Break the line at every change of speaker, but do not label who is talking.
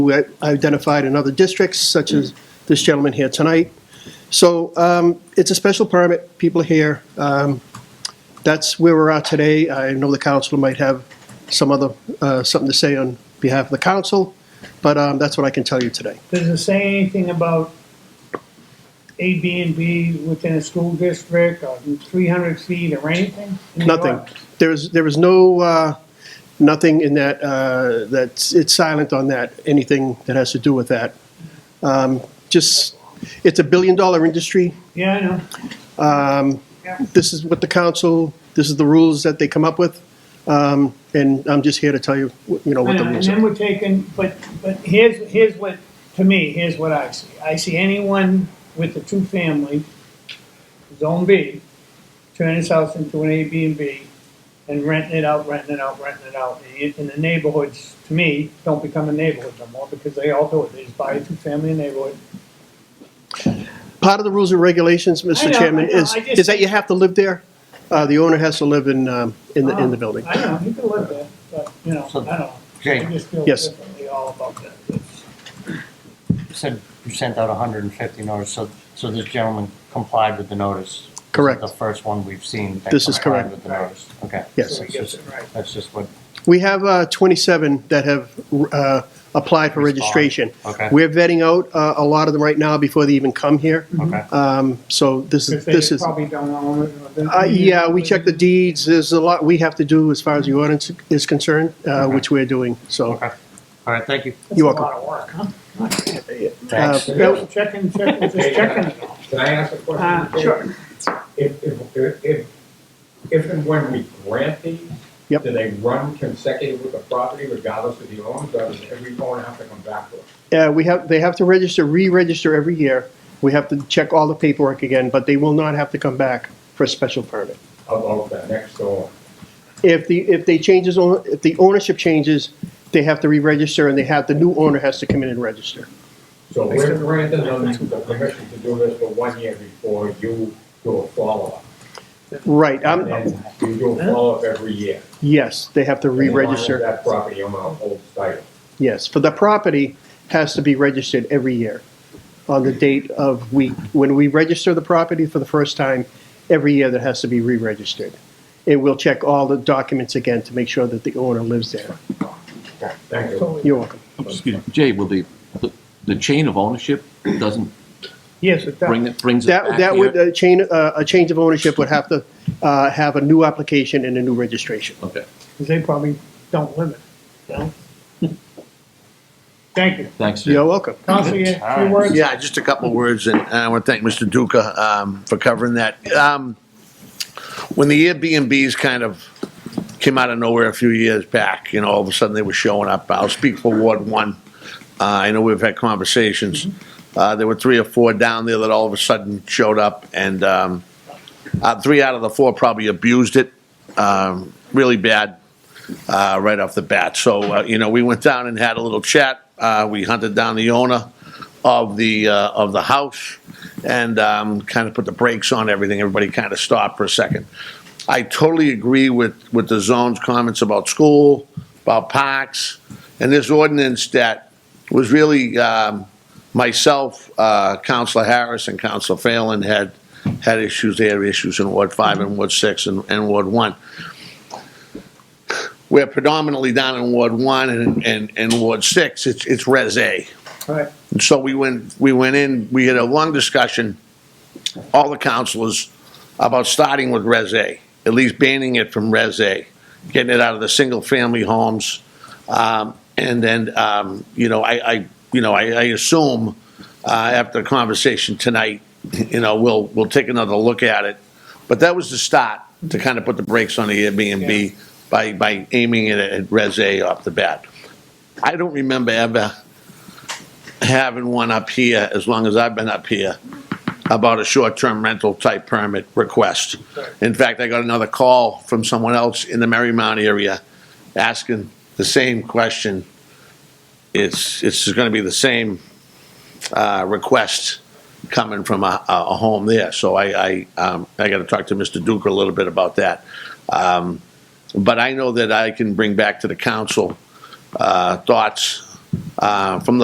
who I identified in other districts, such as this gentleman here tonight. So um, it's a special permit, people are here. Um, That's where we're at today. I know the council might have some other, uh, something to say on behalf of the council, but um, that's what I can tell you today.
Does it say anything about A, B, and B within a school district or three hundred feet or anything? in the
Nothing.
ordinance?
There is, there is no, uh, nothing in that, uh, that's, it's silent on that, anything that has to do with that. Um, Just, it's a billion-dollar industry.
Yeah, I know.
This is what the council, this is the rules that they come up with. Um, And I'm just here to tell you, you know,
I
what the
know. And
rules
then
are.
we're taking, but, but here's, here's what, to me, here's what I see. I see anyone with a two-family, zone B, turn his house into an A, B, and B, and renting it out, renting it out, renting it out. And it- And the neighborhoods, to me, don't become a neighborhood no more because they all do it. They just buy a two-family neighborhood,
Part of the rules and regulations,
I
Mr.
know,
Chairman,
I know,
is,
I just-
is that you have to live there. Uh, The owner has to live in, um, in the, in
Uh-huh.
the building.
I know, you can live there, but, you know, I don't know.
Jay.
I just feel
Yes.
differently all about that. It's-
You said you sent out hundred and fifty notices, so, so this gentleman complied with the notice? This is
Correct.
The first one we've seen that
This is
complied
correct.
with the notice, okay?
Yes.
So he gets it right.
That's just what,
We have uh, 27 that have uh, applied for
Respond.
registration.
Okay.
We're vetting out uh, a lot of them right now before they even come here.
okay,
Um, So this is,
Because
this
they
is,
probably don't own it. or they-
uh, yeah, we check the deeds, there's a lot we have to do as far as the ordinance is concerned, uh,
Okay.
which we're doing, so.
okay. All right, thank you.
That's
You're
a
welcome.
lot of work, huh?
Thanks.
Uh,
Just Checking, checking, just checking.
Can I ask a question?
Uh, sure.
If, if, if- if, if and when we grant these,
Yep.
do they run consecutive with the property regardless of the owners, or does every owner have to come back to us?
Uh, we have, they have to register, re-register every year. We have to check all the paperwork again, but they will not have to come back for a special permit.
About that next door,
If the, if they changes, own- if the ownership changes, they have to re-register and they have, the new owner has to come in and register.
so we're granted them the permission to do this for one year before you do a follow-up.
Right,
And
um,
then you do a follow-up every year.
yes, they have to
And as long as
re-register,
That property owner holds title.
yes, for the property has to be registered every year on the date of we, when we register the property for the first time, every year that has to be re-registered. And we'll check all the documents again to make sure that the owner lives there.
Thank you.
You're welcome.
Excuse me, Jay, will the, the- the chain of ownership doesn't
Yes, it
bring,
does.
it brings it
That,
back
that would,
here?
a chain, uh, a change of ownership would have to uh, have a new application and a new registration.
Okay,
'Cause they probably don't live it, you know? Thank you.
thanks, Jay.
You're welcome.
Counsel, you,
All
your
right.
words?
Yeah, just a couple of words, and and I want to thank Mr. Duca um, for covering that. Um, When the Airbnbs kind of came out of nowhere a few years back, you know, all of a sudden they were showing up. I'll speak for Ward One. Uh, I know we've had conversations. Uh, There were three or four down there that all of a sudden showed up, and um, uh, three out of the four probably abused it um, really bad uh, right off the bat. So, uh, you know, we went down and had a little chat. Uh, We hunted down the owner of the, uh, of the house and um, kind of put the brakes on everything. Everybody kind of stopped for a second. I totally agree with, with the zone's comments about school, about parks, and this ordinance that was really, um, myself, uh, Counselor Harris and Counselor Phelan had, had issues. They had issues in Ward Five and Ward Six and, and Ward One we're predominantly down in Ward One and, and, and Ward Six, it's, it's Res A.
All right.
And so we went, we went in, we had a long discussion, all the councilors, about starting with Res A, at least banning it from Res A, getting it out of the single-family homes. Um, and then, um, you know, I, I, you know, I, I assume, uh, after the conversation tonight, you know, we'll, we'll take another look at it. But that was the start, to kind of put the brakes on the Airbnb by, by aiming it at Res A off the bat. I don't remember ever having one up here, as long as I've been up here, about a short-term rental type permit request. In fact, I got another call from someone else in the Marymount area asking the same question. It's, it's gonna be the same, uh, request coming from a, a a home there. So I, I, um, I gotta talk to Mr. Duker a little bit about that. Um, but I know that I can bring back to the council, uh, thoughts uh, from the